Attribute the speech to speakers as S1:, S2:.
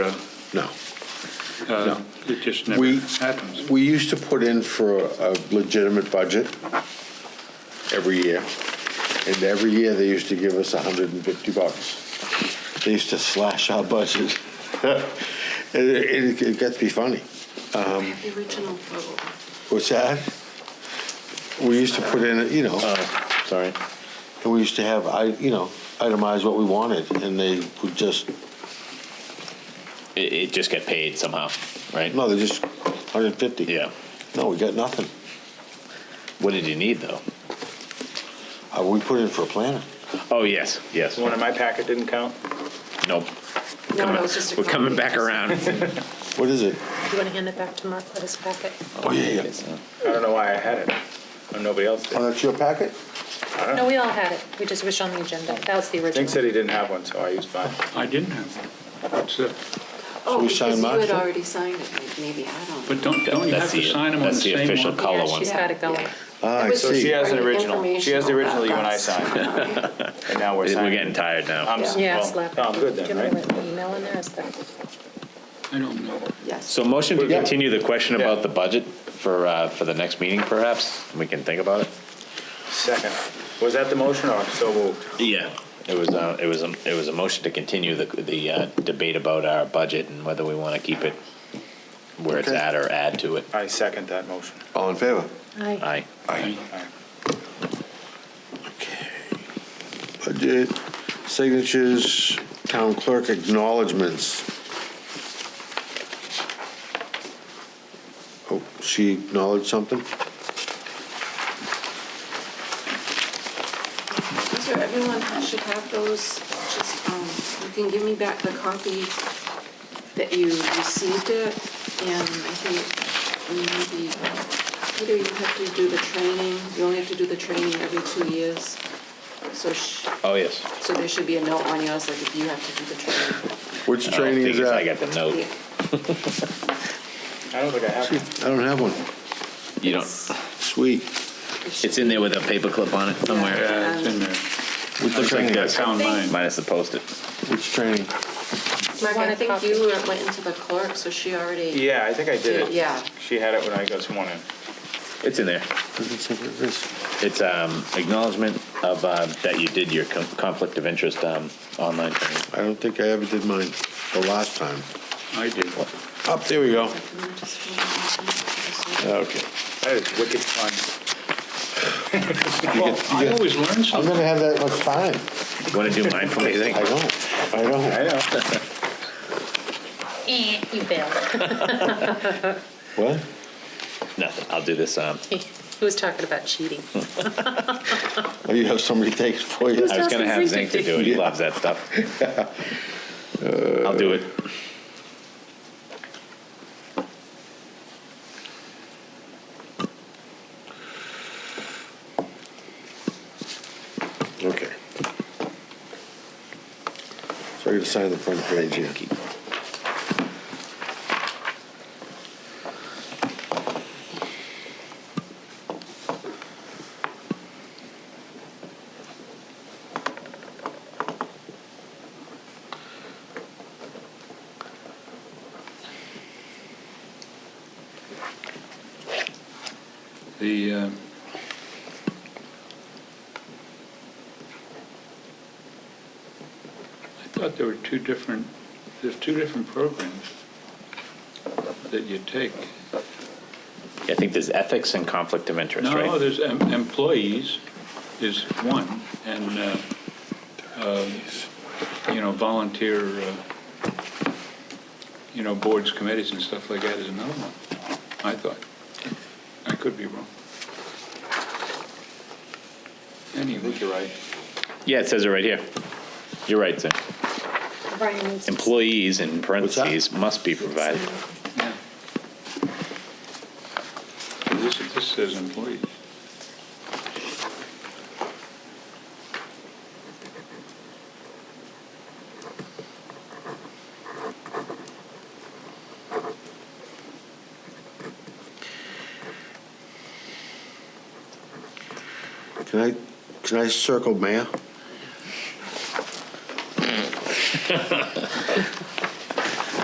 S1: no.
S2: Uh, It just never
S1: We-
S2: happens.
S1: We used to put in for a legitimate budget every year, and every year they used to give us 150 bucks. They used to slash our budget. And It it got to be fungy.
S3: The original vote.
S1: What's that? We used to put in, you know,
S4: Uh, Sorry.
S1: and we used to have, I, you know, itemize what we wanted, and they would just,
S4: It, it just got paid somehow, right?
S1: no, they just 150.
S4: Yeah.
S1: No, we got nothing.
S4: What did you need though?
S1: Uh, We put in for a planner.
S4: Oh yes, yes.
S5: The one in my packet didn't count?
S4: Nope.
S3: No, no, it's just a.
S4: We're coming
S3: copy.
S4: back around.
S1: What is it?
S6: You want to hand it back to Mark with his packet?
S1: Oh, yeah, yeah.
S4: uh,
S5: I don't know why I had it, and nobody else did.
S1: Oh, that's your packet?
S6: No, we all had it. We just wish on the agenda. That was the
S5: Nick said
S6: original.
S5: he didn't have one, so I used mine.
S2: I didn't have one. What's that?
S3: Oh,
S1: we
S3: because
S1: sign
S3: you
S1: Mark's
S3: had
S1: one?
S3: already signed it, like, maybe, I don't.
S2: But don't, don't you have
S4: That's
S2: to
S4: the-
S2: sign them on the
S4: that's the
S2: same
S4: official
S2: one?
S4: col- Color
S3: Yeah,
S4: one.
S3: she's
S6: She's got it going.
S1: Ah, I
S3: It was
S1: see.
S5: She has an
S3: Right,
S5: original, she has the
S3: informational,
S5: original you and I
S3: that's-
S5: signed, and now we're signing.
S4: We're getting tired now.
S5: I'm s-
S6: Yeah,
S5: well,
S6: slap.
S5: no, I'm good
S6: Do
S5: then,
S6: you want to
S5: right?
S6: write an email in there? Is that?
S2: I don't know.
S3: Yes.
S4: So motion to
S1: Yeah.
S4: continue the question
S5: Yeah.
S4: about the budget for uh, for the next meeting, perhaps we can think about it.
S5: Second, was that the motion or so moved?
S4: Yeah. It was uh, it was a, it was a motion to continue the the uh, debate about our budget and whether we want to keep it where it's
S1: Okay.
S4: at or add to it.
S5: I second that motion.
S1: All in favor?
S4: Aye.
S1: Aye. Budget, signatures, town clerk acknowledgements. Oh, she acknowledged something?
S3: These are, everyone ha- should have those, just, um, you can give me back the copy that you received it, and I think maybe, Peter, you have to do the training, you only have to do the training every two years, so sh-
S4: Oh yes.
S3: so there should be a note on yours, like if you have to do the training.
S1: Which
S4: I don't
S1: training
S4: think
S1: is
S4: it's-
S1: that?
S4: I got the note.
S3: Yeah.
S5: I don't think I have one.
S1: I don't have one.
S4: You don't.
S3: It's-
S1: Sweet.
S3: it should
S4: It's in there with a paperclip on it somewhere.
S2: Yeah, it's in there.
S1: Which
S2: I think
S1: training?
S2: I found mine.
S4: Minus the post-it.
S1: Which training?
S3: be- Mark, I think you were- went into the clerk, so she already,
S5: Yeah, I think I did it.
S3: Yeah.
S5: She had it when I got sworn in.
S4: It's in there.
S1: Doesn't say what it is.
S4: It's um, acknowledgement of uh, that you did your con- conflict of interest um, online training.
S1: I don't think I ever did mine the last time.
S2: I did.
S1: Up, there we go.
S3: Can you just hold on a second?
S1: Okay.
S5: That is wicked fun.
S2: Well, I always learn
S1: I'm
S2: something.
S1: gonna have that much time.
S4: Want to do mine for me? Zink?
S1: I don't, I don't.
S5: I know.
S6: Eh, you failed.
S1: What?
S4: Nothing. I'll do this. Um,
S6: He was talking about cheating.
S1: Oh, you have somebody take it for you?
S4: I was going to have Zink to do it. He loves that stuff. I'll do it.
S1: Okay. So I gotta sign the front page here.
S2: The, uh, I thought there were two different, there's two different programs that you take.
S4: I think there's ethics and conflict of interest, right?
S2: No, there's em- employees is one, and, uh, uh, you know, volunteer, uh, you know, boards, committees and stuff like that is another one, I thought. I could be wrong. Anyway, you're right.
S4: Yeah, it says it right here. You're right, Zink.
S6: Brian needs to-
S4: Employees in
S1: that?
S4: parentheses must be provided.
S2: Yeah. This, this says employees.
S1: Can I, can I circle mayor?